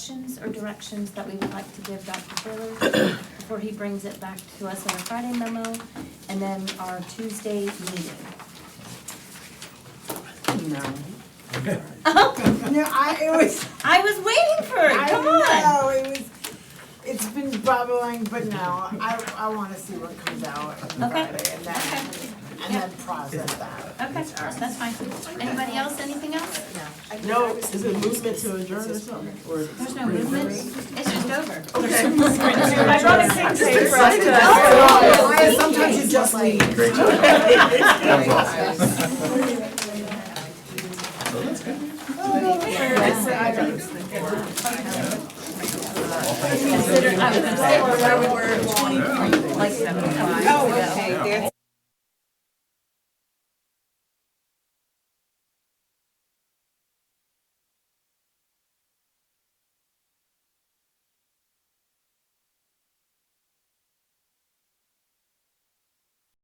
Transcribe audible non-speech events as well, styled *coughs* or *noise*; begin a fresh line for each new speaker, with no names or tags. questions or directions that we would like to give Dr. Fuller *coughs* before he brings it back to us in our Friday memo and then our Tuesday meeting? *laughs*
No. No, I, it was,
I was waiting for it,
I
*laughs* come on.
know, it was, it's been bubbling, but no, I, I wanna see what comes out on
Okay.
Friday and then, and then process that.
Okay, that's fine. Anybody else, anything else?
No, is it movement to adjourn or something? Or-
There's no movement, it's just over. *laughs*
I brought a pink paper.
Oh, I- Sometimes you just leave.
Great job. That was awesome.
Consider, I was gonna say,
Yeah.
Like seven. Oh, okay,